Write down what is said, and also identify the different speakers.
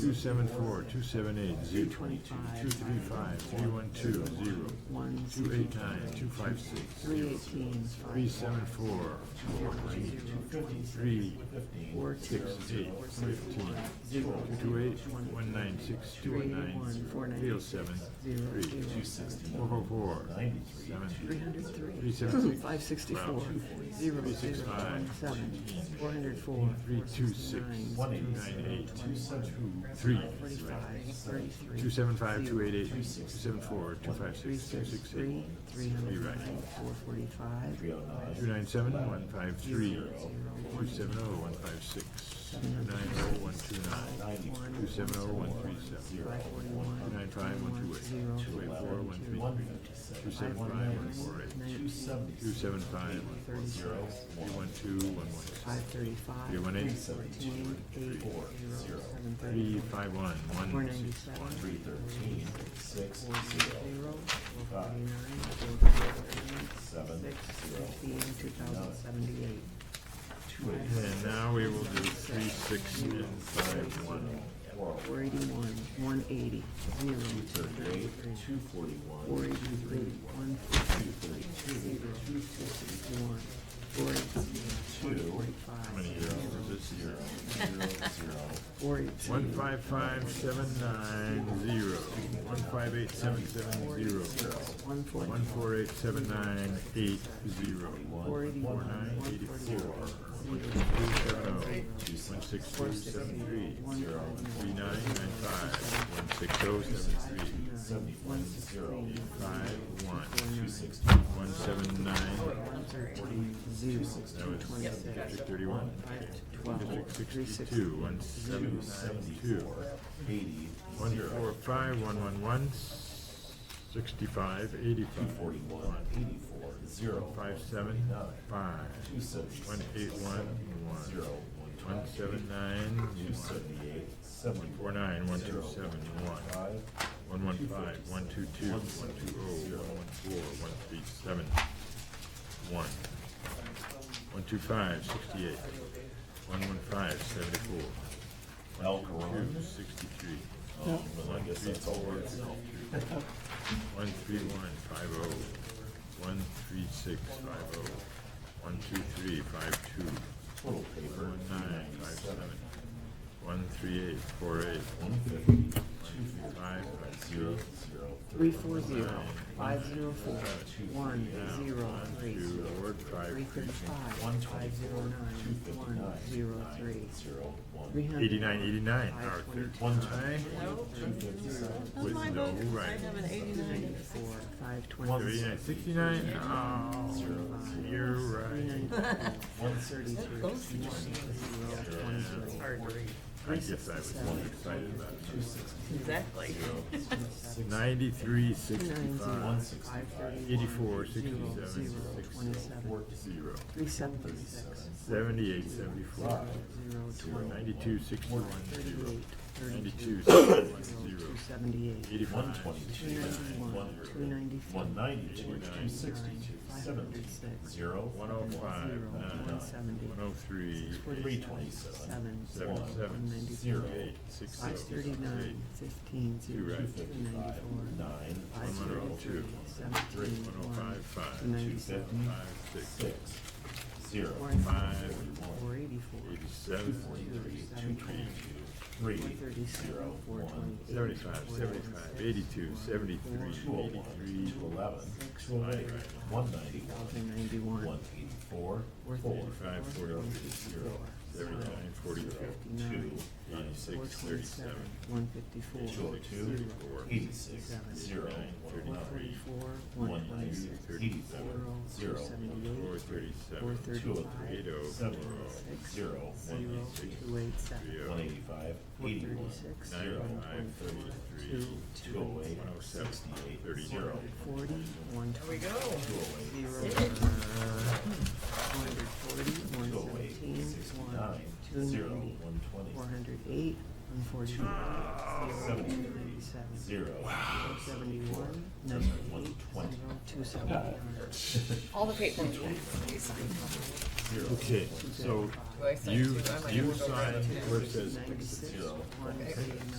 Speaker 1: Two seven four, two seven eight, zero twenty-two, two three five, three one two, zero, two eight nine, two five six, zero, three seven four, four three, three, six eight, fifteen, two two eight, one nine six, two one nine, three oh seven, three, four four four, seven, three seven six,
Speaker 2: Five sixty-four, zero, zero, twenty-seven, four hundred four,
Speaker 1: three two six, two nine eight, three,
Speaker 2: forty-five, thirty-three.
Speaker 1: two seven five, two eight eight, two seven four, two five six, two six
Speaker 2: Three,
Speaker 1: eight,
Speaker 2: three
Speaker 1: three
Speaker 2: hundred
Speaker 1: right.
Speaker 2: nine, four forty-five,
Speaker 1: Two nine seven, one five three, two seven oh, one five six, two nine oh, one two nine, two seven oh, one three seven,
Speaker 2: five
Speaker 1: two
Speaker 2: forty-one,
Speaker 1: nine five, one two eight, two eight four, one three, two seven five, one four eight,
Speaker 2: nineteen,
Speaker 1: two seven five, one four zero, three one two, one one
Speaker 2: five
Speaker 1: six,
Speaker 2: thirty-five,
Speaker 1: three one eight,
Speaker 2: fourteen, eight, zero, seven
Speaker 1: three
Speaker 2: thirty.
Speaker 1: five one,
Speaker 2: Four
Speaker 1: one six
Speaker 2: ninety-seven,
Speaker 1: one,
Speaker 2: three thirteen, six, zero, four forty-nine, four forty-eight, six, fifteen, two thousand seventy-eight.
Speaker 1: And now we will do three six and five one,
Speaker 2: Four eighty-one, one eighty, zero. Two thirty-eight, two forty-one. Four eighty-three, one fifty-three, zero, two sixty-one, four eighty-two, one
Speaker 1: how many
Speaker 2: forty-five,
Speaker 1: zeros is this zero?
Speaker 2: four eighty-two.
Speaker 1: One five five seven nine zero, one five eight seven seven zero,
Speaker 2: One forty,
Speaker 1: one four eight seven nine eight zero,
Speaker 2: four eighty-one,
Speaker 1: four
Speaker 2: one
Speaker 1: nine eighty four,
Speaker 2: forty-one, zero,
Speaker 1: two seven oh, one six two seven three,
Speaker 2: one
Speaker 1: three
Speaker 2: five
Speaker 1: nine nine five, one six oh seven three,
Speaker 2: nine, one sixteen,
Speaker 1: five one, one seven
Speaker 2: one
Speaker 1: nine,
Speaker 2: thirteen, zero, two
Speaker 1: was-
Speaker 2: twenty-six,
Speaker 1: district thirty one,
Speaker 2: five twelve, three
Speaker 1: district
Speaker 2: sixty,
Speaker 1: sixty-two, one seven nine two.
Speaker 3: eighty,
Speaker 1: One four five, one one one, sixty-five, eighty-five.
Speaker 3: forty-one, eighty-four, zero,
Speaker 1: Five seven, five.
Speaker 3: two seventy-six,
Speaker 1: One eight one, one.
Speaker 3: zero, one
Speaker 1: One
Speaker 3: twenty,
Speaker 1: seven nine,
Speaker 3: two
Speaker 1: one.
Speaker 3: seventy-eight, seventy,
Speaker 1: Four nine, one two seven, one.
Speaker 3: five,
Speaker 1: One one five, one two two, one two oh, one one four, one three seven, one. One two five, sixty-eight. One one five, seventy-four.
Speaker 3: El
Speaker 1: Two,
Speaker 3: Caron,
Speaker 1: sixty-three.
Speaker 3: um, I guess that's all we're
Speaker 1: One three one five oh, one three six five oh, one two three five two,
Speaker 3: Total paper,
Speaker 1: one nine five seven, one three eight four eight,
Speaker 3: one fifty, two
Speaker 1: one five five zero,
Speaker 3: zero, zero,
Speaker 2: three four zero, five zero four, one, zero, three,
Speaker 1: two, Ward five,
Speaker 2: three
Speaker 1: three,
Speaker 2: thirty-five,
Speaker 3: one
Speaker 2: five
Speaker 3: twenty-four,
Speaker 2: zero
Speaker 3: two
Speaker 2: nine, one,
Speaker 3: fifty-nine,
Speaker 2: zero,
Speaker 3: nine,
Speaker 2: three.
Speaker 3: zero,
Speaker 2: Three
Speaker 3: one,
Speaker 2: hundred.
Speaker 1: eighty-nine, eighty-nine,
Speaker 2: Five
Speaker 1: Arthur.
Speaker 2: twenty-two.
Speaker 3: one
Speaker 1: Aye,
Speaker 3: two fifty-seven,
Speaker 1: with no right.
Speaker 4: have an eighty-nine.
Speaker 2: Four, five
Speaker 1: Thirty-nine, sixty-nine, oh, you're right.
Speaker 3: one
Speaker 2: thirty-three, one, zero, twenty-three.
Speaker 1: I guess I was more excited about it.
Speaker 4: Exactly.
Speaker 1: Ninety-three, sixty-five,
Speaker 2: Five thirty-one.
Speaker 1: eighty-four,
Speaker 2: Zero,
Speaker 1: sixty-seven,
Speaker 2: zero,
Speaker 1: sixty-four,
Speaker 2: twenty-seven.
Speaker 1: zero,
Speaker 2: Three seventy-six,
Speaker 1: seventy-eight, seventy-four,
Speaker 2: zero, twenty,
Speaker 1: ninety-two, sixty-one, zero,
Speaker 2: thirty-eight, thirty-two,
Speaker 1: ninety-two, sixty-one,
Speaker 2: zero,
Speaker 1: zero,
Speaker 2: two seventy-eight.
Speaker 3: One
Speaker 1: eighty-five,
Speaker 3: twenty-two,
Speaker 2: Ninety-one,
Speaker 3: one
Speaker 2: two ninety-three.
Speaker 3: one ninety-two, two
Speaker 2: Nine,
Speaker 3: sixty-two,
Speaker 2: five
Speaker 3: seventy,
Speaker 2: hundred six.
Speaker 3: zero,
Speaker 1: one oh five,
Speaker 2: Zero, one
Speaker 1: nine,
Speaker 2: seventy.
Speaker 1: one oh three,
Speaker 3: three
Speaker 1: eight,
Speaker 2: Seven,
Speaker 3: twenty-seven,
Speaker 1: seven,
Speaker 2: one,
Speaker 1: seven,
Speaker 2: one ninety-four.
Speaker 3: zero,
Speaker 1: eight, six, oh,
Speaker 2: Five
Speaker 1: eight,
Speaker 2: thirty-nine, fifteen,
Speaker 1: Two
Speaker 2: zero,
Speaker 1: right.
Speaker 2: two ninety-four.
Speaker 3: nine,
Speaker 2: Five
Speaker 1: one oh two,
Speaker 2: thirty-two,
Speaker 1: three,
Speaker 2: seventeen,
Speaker 1: one oh
Speaker 2: one,
Speaker 1: five, five,
Speaker 2: two
Speaker 1: two,
Speaker 2: ninety-seven.
Speaker 1: five, six,
Speaker 3: six, zero,
Speaker 2: Four,
Speaker 1: five,
Speaker 2: four eighty-four.
Speaker 1: eighty-seven,
Speaker 3: forty-three, two
Speaker 2: Seven,
Speaker 3: twenty-two, three,
Speaker 2: One thirty-seven,
Speaker 3: zero,
Speaker 2: four
Speaker 3: one,
Speaker 2: twenty.
Speaker 1: seventy-five, seventy-five, eighty-two, seventy-three,
Speaker 3: two oh one,
Speaker 1: eighty-three,
Speaker 3: two eleven, two oh eight, one ninety-one,
Speaker 2: Thousand ninety-one.
Speaker 3: one eighty-four,
Speaker 2: Four
Speaker 3: four,
Speaker 1: eighty-five, forty-three,
Speaker 3: zero,
Speaker 1: seventy-nine, forty-two,
Speaker 3: two,
Speaker 2: Fifty-nine. Four
Speaker 1: eighty-six,
Speaker 2: twenty-seven,
Speaker 1: thirty-seven,
Speaker 2: one fifty-four.
Speaker 3: two oh two, eighty-six, zero,
Speaker 2: One
Speaker 3: one nine,
Speaker 2: forty-four, one
Speaker 3: one
Speaker 2: twenty-six,
Speaker 3: ninety, eighty-four,
Speaker 2: zero,
Speaker 3: zero,
Speaker 2: two
Speaker 1: four
Speaker 2: seventy-eight, four
Speaker 1: thirty-seven,
Speaker 3: two oh
Speaker 2: thirty-five,
Speaker 3: three,
Speaker 1: eight oh,
Speaker 3: seven, zero, one
Speaker 2: zero,
Speaker 3: eighty-six,
Speaker 2: two eight seven,
Speaker 1: three
Speaker 3: one
Speaker 1: oh,
Speaker 3: eighty-five,
Speaker 2: four
Speaker 3: eighty-one,
Speaker 2: thirty-six,
Speaker 1: nine
Speaker 3: zero,
Speaker 2: one
Speaker 1: five,
Speaker 2: twenty-four,
Speaker 1: thirty-three,
Speaker 2: two,
Speaker 3: two oh eight,
Speaker 1: one oh seven,
Speaker 3: sixty-eight,
Speaker 1: thirty.
Speaker 3: zero,
Speaker 2: forty, one
Speaker 4: There we
Speaker 2: twenty,
Speaker 4: go.
Speaker 3: two oh eight,
Speaker 2: zero, one hundred forty, one
Speaker 3: two oh eight,
Speaker 2: seventeen, one,
Speaker 3: sixty-nine,
Speaker 2: two
Speaker 3: zero,
Speaker 2: ninety,
Speaker 3: one
Speaker 2: four
Speaker 3: twenty,
Speaker 2: hundred eight, one one forty-five, zero, seven,
Speaker 3: zero.
Speaker 2: seventy-one, ninety-eight, zero, two seventy-nine.
Speaker 4: All the paperwork.
Speaker 1: Okay, so
Speaker 4: Do I sign
Speaker 1: you,
Speaker 4: too? I might
Speaker 1: you
Speaker 4: have to go grab
Speaker 1: sign
Speaker 4: it.
Speaker 1: where it says
Speaker 2: Ninety-six, one eighty-nine.